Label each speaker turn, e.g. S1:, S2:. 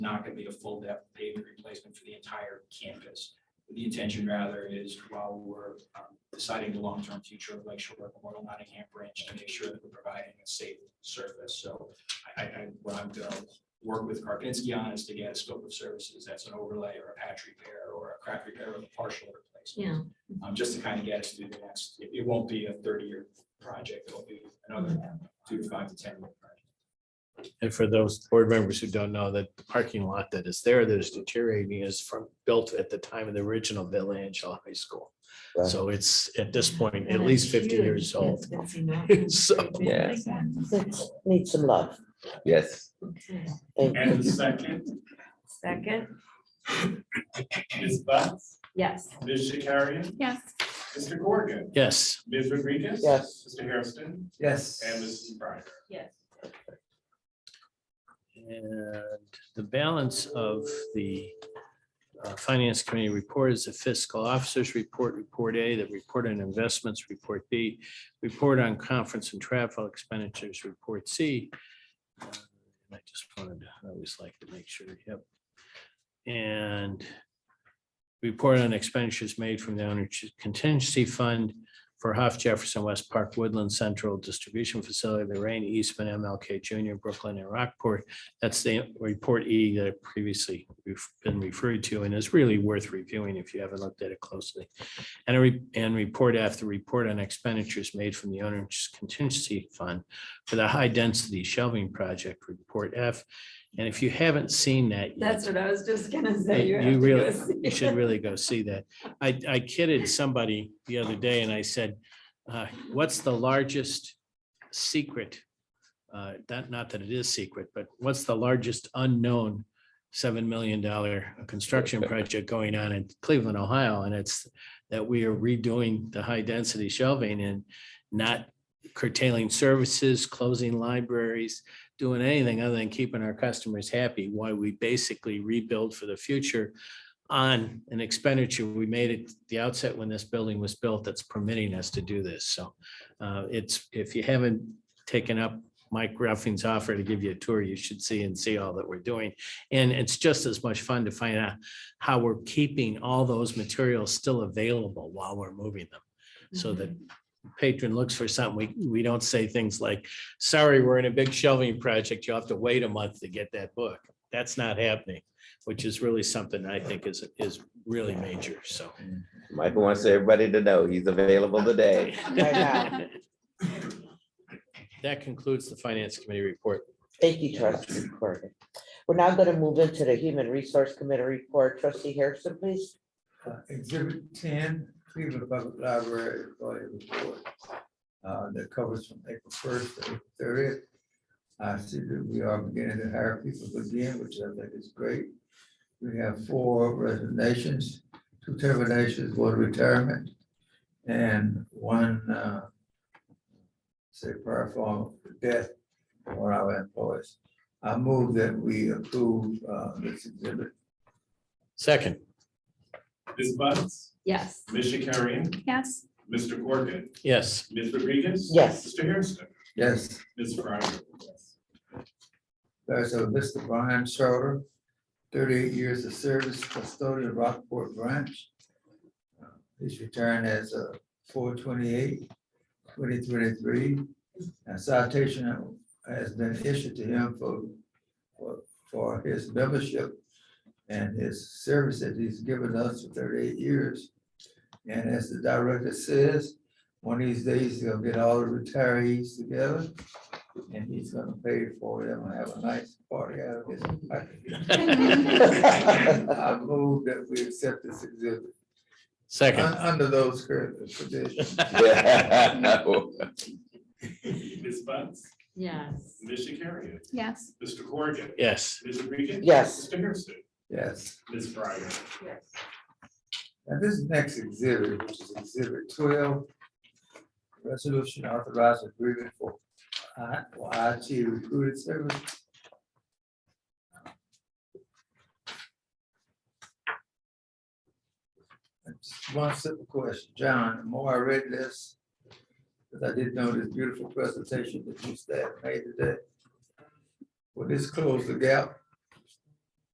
S1: not gonna be a full depth pavement replacement for the entire campus. The intention rather is while we're um, deciding the long-term future of Lake Shore Memorial Nottingham Branch to make sure that we're providing a safe surface. So I, I, I- what I'm gonna work with Karpinski on is to get a scope of services that's an overlay or a patch repair or a crack repair or a partial replacement.
S2: Yeah,
S1: Um, just to kind of get us through the next, it, it won't be a thirty-year project, it'll be another two to five to ten year project.
S3: And for those board members who don't know, that the parking lot that is there that is deteriorating is from, built at the time of the original Bill Angel High School.
S4: Wow.
S3: So it's at this point, at
S2: and
S3: least
S2: it's
S3: fifty
S2: huge.
S3: years old.
S2: That's- that's enormous.
S3: So,
S4: Yeah.
S2: That's-
S5: Needs some love.
S4: Yes.
S2: okay.
S5: Thank you.
S6: And the second
S2: Second,
S6: Ms. Bus,
S2: yes.
S6: Ms. Shakarian,
S7: Yes.
S6: Mr. Corrigan,
S3: yes,
S6: Ms. Rodriguez.
S5: Yes.
S6: Mr. Hairston
S4: Yes.
S6: and Mrs. Briner.
S2: Yes.
S3: and the balance of the uh, Finance Committee report is the fiscal officers report, report A, the report on investments, report B, report on conference and travel expenditures, report C. Uh, And I just wanted, to I always like to make sure, yep. And report on expenditures made from the owner contingency fund for Huff Jefferson West Park Woodland Central Distribution Facility, Lorraine Eastman, MLK Junior, Brooklyn and Rockport. That's the report E that I previously we've been referred to and is really worth reviewing if you haven't looked at it closely. And a re- and report F, the report on expenditures made from the owner's contingency fund for the high density shelving project, report F. And if you haven't seen that yet.
S2: That's what I was just gonna
S3: Hey,
S2: say. have
S3: You
S2: to
S3: really,
S2: go see
S3: you should
S2: it.
S3: really go see that. I, I kidded somebody the other day and I said, uh, what's the largest secret? Uh, that, not that it is secret, but what's the largest unknown seven million dollar construction project going on in Cleveland, Ohio? And it's that we are redoing the high density shelving and not curtailing services, closing libraries, doing anything other than keeping our customers happy, why we basically rebuild for the future on an expenditure we made at the outset when this building was built that's permitting us to do this. So uh, it's, if you haven't taken up Mike Ruffing's offer to give you a tour, you should see and see all that we're doing. And it's just as much fun to find out how we're keeping all those materials still available while we're moving them. So that patron looks for something, we, we don't say things like, sorry, we're in a big shelving project. You'll have to wait a month to get that book. That's not happening, which is really something I think is, is really major. So.
S4: Michael wants everybody to know he's available today.
S5: now.
S3: That concludes the finance committee report.
S5: Thank you, trustee Corrigan. We're now going to move into the Human Resource Committee report. Trustee Harrison, please.
S8: Uh, Exhibit ten, Cleveland Public Library employee report. uh, that covers from April first to thirtieth. I see that we are beginning to hire people again, which I think is great. We have four resignations, two terminations, one retirement, and one, uh, say prior form of death for one of our employees. I move that we approve, uh, this exhibit
S3: Second,
S6: Ms. Bus,
S2: Yes.
S6: Ms. Shakarian,
S7: Yes.
S6: Mr. Corrigan,
S3: yes,
S6: Ms. Rodriguez.
S5: Yes.
S6: Mr. Hairston,
S8: Yes,
S6: Ms. Briner.
S8: there's a list of Brian Schroeder, thirty-eight years of service custodian of Rockport Branch. Uh, He's returned as a 2023, A citation has been issued to him for, for, for his membership and his service that he's given us for thirty-eight years. And as the director says, one of these days, he'll get all the retirees together and he's gonna pay for them and have a nice party out of this. I move that we accept this exhibit, un-
S3: second,
S8: under those current conditions.
S6: Ms. Bus,
S2: Yes.
S6: Ms. Shakarian,
S7: Yes.
S6: Mr. Corrigan,
S3: yes,
S6: Ms. Rodriguez.
S5: Yes.
S6: Mr. Hairston,
S8: Yes,
S6: Ms. Briner.
S8: and this next exhibit, which is exhibit twelve, resolution authorizing agreement for I- for IT recruited service. Just One simple question, John, the more I read this, because I did know this beautiful presentation that you staff made today. Will this close the gap